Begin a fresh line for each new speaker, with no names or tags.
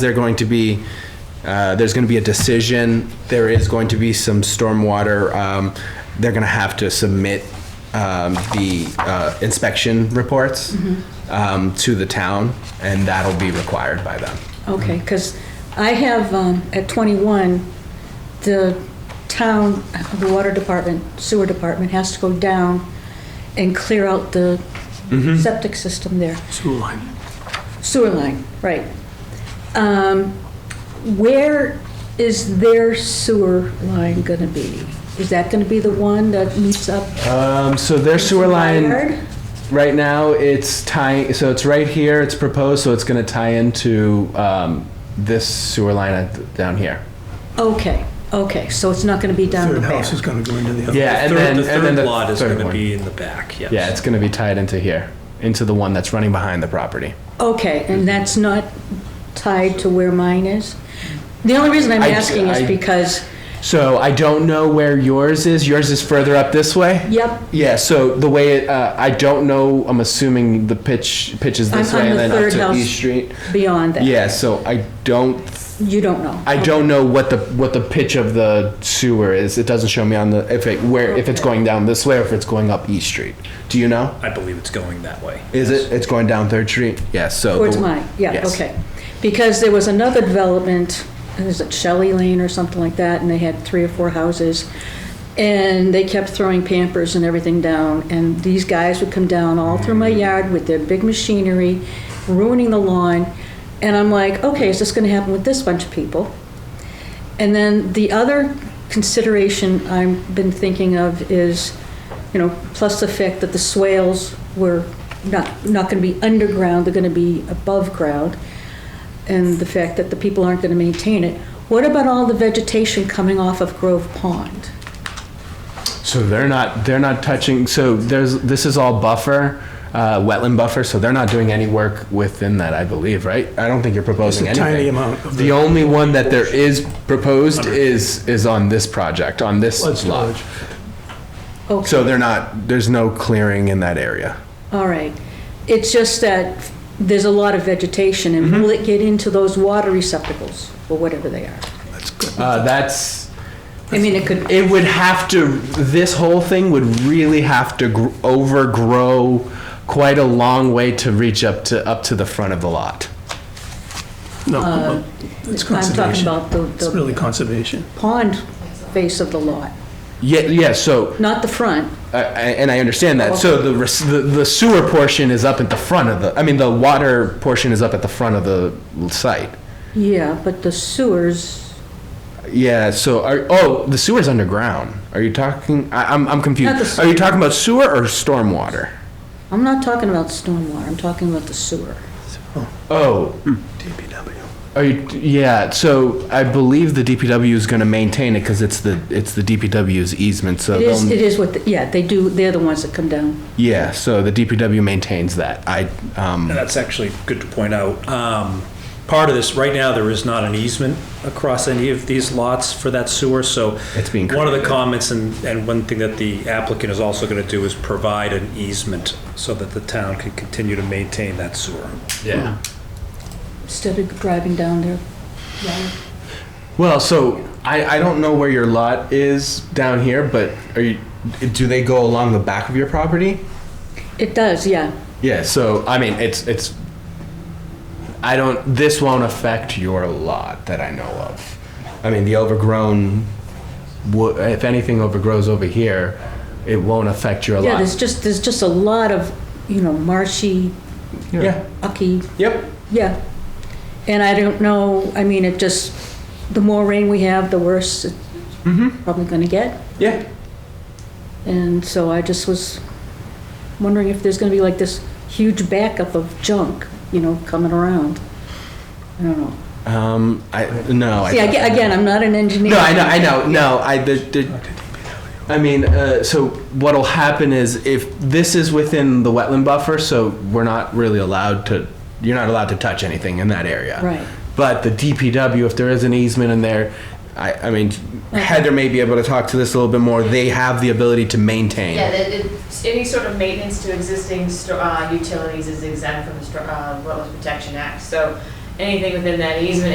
they're going to be, uh, there's going to be a decision, there is going to be some stormwater, um, they're going to have to submit um, the uh, inspection reports um, to the town, and that'll be required by them.
Okay, because I have, um, at 21, the town, the water department, sewer department has to go down and clear out the septic system there.
Mm-hmm. Sewer line.
Sewer line, right. Um, Where is their sewer line going to be? Is that going to be the one that meets up?
Uh,
Um, So their sewer
Yard?
line, right now, it's tying, so it's right here, it's proposed, so it's going to tie into um, this sewer line at- down here.
Okay, okay, so it's not going to be down the
Third
back.
house is gonna go into the other.
Yeah, and then-
The
and then
third
the
lot is
third
gonna
one.
be in the back, yes.
Yeah, it's going to be tied into here, into the one that's running behind the property.
Okay,
Mm-hmm.
and that's not tied to where mine is? The only reason I'm
I-
asking
I-
is because,
So I don't know where yours is. Yours is further up this way.
yep,
Yeah. So the way it, uh, I don't know. I'm assuming the pitch pitches this
I'm-
way
I'm
and
the
then up
third
to
house.
East Street.
beyond that.
Yeah. So I don't.
You don't know?
I don't know what the what the pitch of the sewer is. It doesn't show me on the if it where if it's
Okay.
going down this way or if it's going up East Street. Do you know?
I believe it's going that way.
Is it? It's going down Third Street. Yes. so
Towards
the-
mine, yeah,
yes.
okay. Because there was another development, is it Shelley Lane or something like that, and they had three or four houses, and they kept throwing pampers and everything down, and these guys would come down all through my yard with their big machinery, ruining the lawn, and I'm like, okay, is this gonna happen with this bunch of people? And then the other consideration I've been thinking of is, you know, plus the fact that the swales were not, not gonna be underground, they're gonna be above ground, and the fact that the people aren't gonna maintain it. What about all the vegetation coming off of Grove Pond?
So they're not, they're not touching, so there's, this is all buffer, uh, wetland buffer, so they're not doing any work within that, I believe, right? I don't think you're proposing
It's a
anything.
tiny amount of
The
the-
only one that there is proposed is, is on this project, on this
Flood
lot.
storage.
Okay,
So they're not, there's no clearing in that area.
all right. It's just that there's a lot of vegetation, and
Mm-hmm.
will it get into those water receptacles, or whatever they are?
Uh, that's,
I mean, it could,
it would have to, this whole thing would really have to gr- overgrow quite a long way to reach up to, up to the front of the lot.
No, it's
Uh, I'm talking
conservation.
about the,
It's
the
really conservation.
pond face of the lot,
Yeah, yeah, so
not the front.
I- I- and I understand that. So the, res- the the sewer portion is up at the front of the, I mean, the water portion is up at the front of the site.
Yeah, but the sewers,
Yeah, so are, oh, the sewer's underground. Are you talking, I, I'm, I'm
Not
confused.
the
Are you talking about sewer or stormwater?
I'm not talking about stormwater, I'm talking about the sewer.
Oh,
DPW.
are you, yeah, so I believe the DPW is gonna maintain it because it's the, it's the DPW's easement, so.
It is,
they'll-
it is what, the- yeah, they do, they're the ones that come down.
Yeah, so the DPW maintains that. I, um,
And that's actually good to point out. Um, Part of this, right now, there is not an easement across any of these lots for that sewer, so.
It's being
One of the
created.
comments and, and one thing that the applicant is also going to do is provide an easement so that the town can continue to maintain that sewer.
yeah.
Instead of driving down there,
Well, so I, I don't know where your lot is down here, but are you, do they go along the back of your property?
it does, yeah.
Yeah, so I mean, it's it's I don't this won't affect your lot that I know of. I mean, the overgrown wo- if anything overgrows over here, it won't affect your
Yeah,
lot.
there's just, there's just a lot of, you know, marshy,
yeah.
ucky,
Yep.
yeah. And I don't know, I mean, it just, the more rain we have, the worse it's probably gonna get.
Yeah.
And so I just was wondering if there's gonna be like this huge backup of junk, you know, coming around. I don't know.
Um I no, I
See, aga- again, I'm not an engineer.
No, I know, I know, no, I, the, the, I mean, uh, so what'll happen is if this is within the wetland buffer, so we're not really allowed to, you're not allowed to touch anything in that area.
Right.
But the DPW, if there is an easement in there, I, I mean, Heather may be able to talk to this a little bit more, they have the ability to maintain.
Yeah, that it- any sort of maintenance to existing stro- uh, utilities is exempt from the stro- uh, Wetlands Protection Act. So anything within that easement